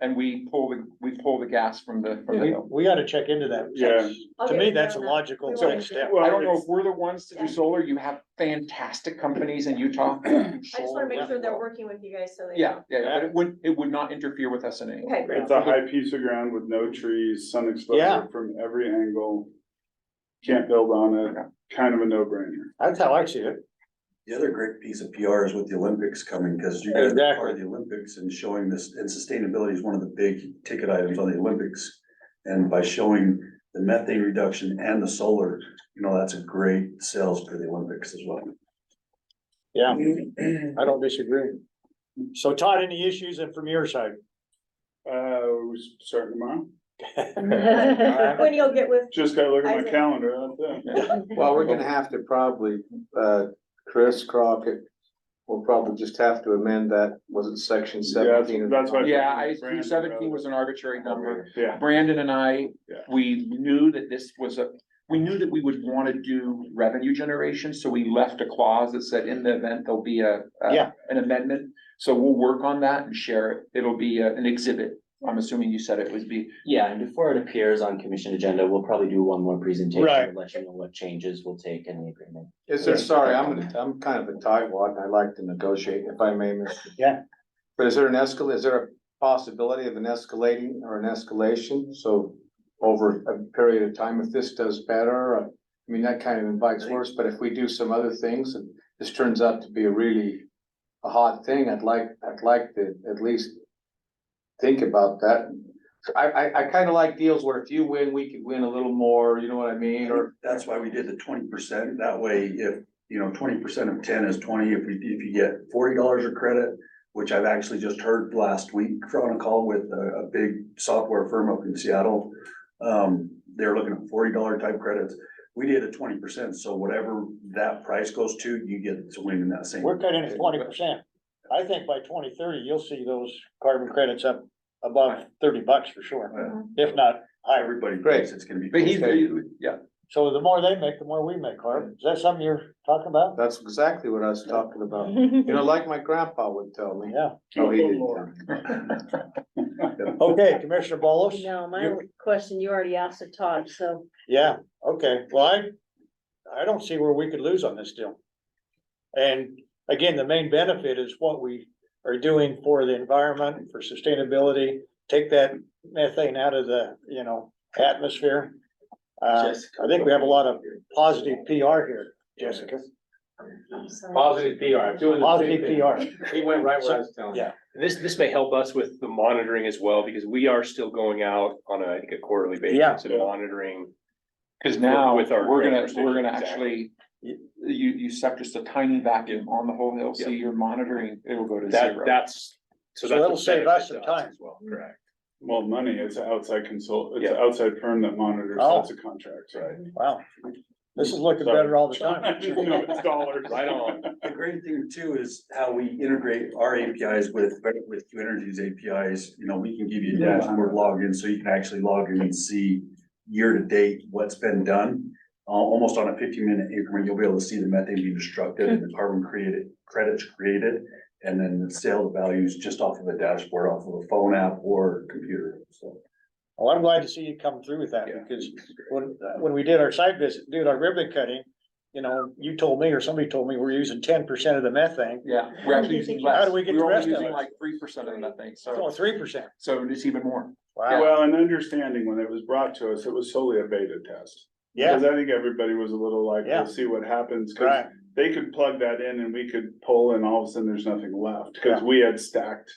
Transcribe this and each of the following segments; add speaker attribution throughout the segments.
Speaker 1: and we pull the, we pull the gas from the, from the
Speaker 2: We,
Speaker 1: hill.
Speaker 2: we gotta check into that.
Speaker 3: Yeah.
Speaker 2: To me, that's a logical
Speaker 4: We
Speaker 2: next
Speaker 4: won't do
Speaker 2: step.
Speaker 3: Well,
Speaker 1: I don't know if
Speaker 3: it's-
Speaker 1: we're the ones to do solar, you have fantastic companies in Utah. I
Speaker 4: I just wanna make sure they're working with you guys so they
Speaker 1: Yeah,
Speaker 4: know.
Speaker 1: yeah, yeah, but it would, it would not interfere with us in any way.
Speaker 4: Okay, great.
Speaker 3: It's a high piece of ground with no trees, sun
Speaker 2: Yeah.
Speaker 3: exposure from every angle. Can't build on it, kind of a no brainer.
Speaker 2: That's how I see it.
Speaker 5: The other great piece of PR is with the Olympics coming, because you guys are part
Speaker 2: Exactly.
Speaker 5: of the Olympics and showing this, and sustainability is one of the big ticket items on the Olympics. And by showing the methane reduction and the solar, you know, that's a great sales for the Olympics as well.
Speaker 2: Yeah, I don't disagree. So Todd, any issues and from your side?
Speaker 3: Uh, we s- start tomorrow.
Speaker 4: When you'll get with,
Speaker 3: Just gotta look at my
Speaker 4: Isaac.
Speaker 3: calendar, that's it.
Speaker 6: Well, we're gonna have to probably, uh, Chris Crockett, we'll probably just have to amend that, was it section
Speaker 3: Yeah,
Speaker 6: seventeen?
Speaker 3: That's why.
Speaker 1: Yeah, I, three seventeen was an arbitrary number.
Speaker 3: Yeah,
Speaker 1: Brandon and I,
Speaker 3: Yeah.
Speaker 1: we knew that this was a, we knew that we would wanna do revenue generation, so we left a clause that said in the event there'll be a. a-
Speaker 2: Yeah.
Speaker 1: An amendment, so we'll work on that and share it, it'll be a- an exhibit, I'm assuming you said it would be,
Speaker 7: Yeah, and before it appears on commission agenda, we'll probably do one more presentation.
Speaker 2: Right.
Speaker 7: to Let you know what changes we'll take in the agreement.
Speaker 6: Is there, sorry, I'm, I'm kind of a tightwad and I like to negotiate if I may, Mr.
Speaker 2: Yeah.
Speaker 6: But is there an escal, is there a possibility of an escalating or an escalation? So over a period of time, if this does better, uh, I mean, that kind of invites worse, but if we do some other things and this turns out to be a really a hot thing, I'd like, I'd like to at least think about that. I, I, I kind of like deals where if you win, we could win a little more, you know what I mean, or
Speaker 5: That's why we did the twenty percent, that way if, you know, twenty percent of ten is twenty, if we, if you get forty dollars of credit, which I've actually just heard last week on a call with a, a big software firm up in Seattle. Um, they're looking at forty dollar type credits, we did a twenty percent, so whatever that price goes to, you get to win in that same.
Speaker 2: We're cutting it twenty percent. I think by twenty thirty, you'll see those carbon credits up above thirty bucks for sure, if not higher.
Speaker 5: Everybody
Speaker 6: Great.
Speaker 5: thinks it's gonna be.
Speaker 1: but he's,
Speaker 6: Okay.
Speaker 1: yeah,
Speaker 2: So the more they make, the more we make, Harv. Is that something you're talking about?
Speaker 6: that's exactly what I was talking about. You know, like my grandpa would tell me.
Speaker 2: Yeah.
Speaker 6: Oh, he
Speaker 3: Oh,
Speaker 6: didn't
Speaker 3: Lord.
Speaker 6: tell me.
Speaker 2: Okay, Commissioner Bolos?
Speaker 8: No, my question you already asked of Todd, so
Speaker 2: Yeah, okay, well, I, I don't see where we could lose on this deal. And again, the main benefit is what we are doing for the environment, for sustainability, take that methane out of the, you know, atmosphere. Uh, I think we have a lot of positive PR here, Jessica,
Speaker 9: Positive PR, I'm doing the
Speaker 2: positive
Speaker 9: same thing.
Speaker 2: PR,
Speaker 9: He went right where I was telling
Speaker 2: Yeah.
Speaker 9: you. This, this may help us with the monitoring as well, because we are still going out on a, I think, a quarterly
Speaker 2: Yeah.
Speaker 9: basis and monitoring.
Speaker 1: cause now, we're
Speaker 9: With our
Speaker 1: gonna,
Speaker 9: ground
Speaker 1: we're gonna
Speaker 9: station,
Speaker 1: actually. You, you suck just a tiny vacuum on the whole hill, so
Speaker 9: Yeah.
Speaker 1: you're monitoring, it'll go to
Speaker 9: That,
Speaker 1: zero.
Speaker 9: that's.
Speaker 2: So
Speaker 9: So that's
Speaker 2: that'll
Speaker 9: a
Speaker 2: save us
Speaker 9: benefit
Speaker 2: some
Speaker 9: to
Speaker 2: time.
Speaker 9: As well, correct.
Speaker 3: well, money, it's an outside consult, it's an
Speaker 9: Yeah.
Speaker 3: outside firm that monitors,
Speaker 2: Oh.
Speaker 3: that's a contract, right?
Speaker 2: wow. This is looking better all the time.
Speaker 3: No, it's dollars.
Speaker 9: Right on.
Speaker 5: The great thing too is how we integrate our APIs with, with Q Energy's APIs, you know, we can give you a
Speaker 3: Yeah.
Speaker 5: dashboard login, so you can actually log in and see year to date what's been done. Al- Almost on a fifteen minute increment, you'll be able to see the methane being destructed, and the
Speaker 3: Hmm.
Speaker 5: carbon created, credits created, and then the sale values just off of a dashboard, off of a phone app or computer, so.
Speaker 2: Well, I'm glad to see you come through with that,
Speaker 3: Yeah.
Speaker 2: because when, when we did our site visit, did our ribbon cutting, you know, you told me or somebody told me we're using ten percent of the methane.
Speaker 1: Yeah, we're actually using less.
Speaker 2: How do we get
Speaker 1: We're
Speaker 2: the
Speaker 1: only
Speaker 2: rest of
Speaker 1: using
Speaker 2: it?
Speaker 1: Like three percent of that thing,
Speaker 2: Oh,
Speaker 1: so,
Speaker 2: three percent.
Speaker 1: so it's even more.
Speaker 2: Wow,
Speaker 3: Well, and understanding when it was brought to us, it was solely a beta test.
Speaker 2: yeah,
Speaker 3: Cause I think everybody was a little like,
Speaker 2: Yeah.
Speaker 3: we'll see what happens, cause
Speaker 2: right,
Speaker 3: they could plug that in and we could pull and all of a sudden there's nothing left, cause we had stacked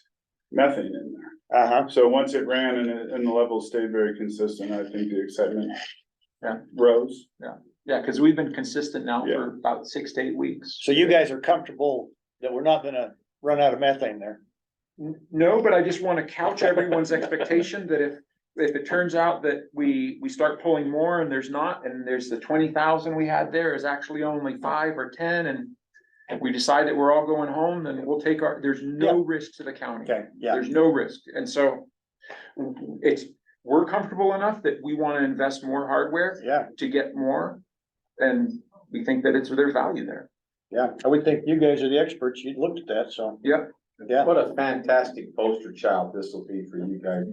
Speaker 3: methane in there.
Speaker 2: uh-huh,
Speaker 3: So once it ran and it, and the levels stayed very consistent, I think the excitement
Speaker 1: Yeah.
Speaker 3: rose.
Speaker 1: Yeah, because we've been consistent now
Speaker 3: Yeah.
Speaker 1: for about six to eight weeks.
Speaker 2: so you guys are comfortable that we're not gonna run out of methane there?
Speaker 1: N- No, but I just want to couch everyone's expectation that if, if it turns out that we, we start pulling more and there's not, and there's the twenty thousand we had there is actually only five or ten, and if we decide that we're all going home, then we'll take our, there's no risk to the county.
Speaker 2: Okay, yeah,
Speaker 1: There's no risk, and so it's, we're comfortable enough that we want to invest more hardware
Speaker 2: yeah,
Speaker 1: to get more, and we think that it's, there's value there.
Speaker 2: yeah, I would think you guys are the experts, you looked at that, so.
Speaker 1: Yeah.
Speaker 2: Yeah.
Speaker 6: What a fantastic poster child this will be for you guys.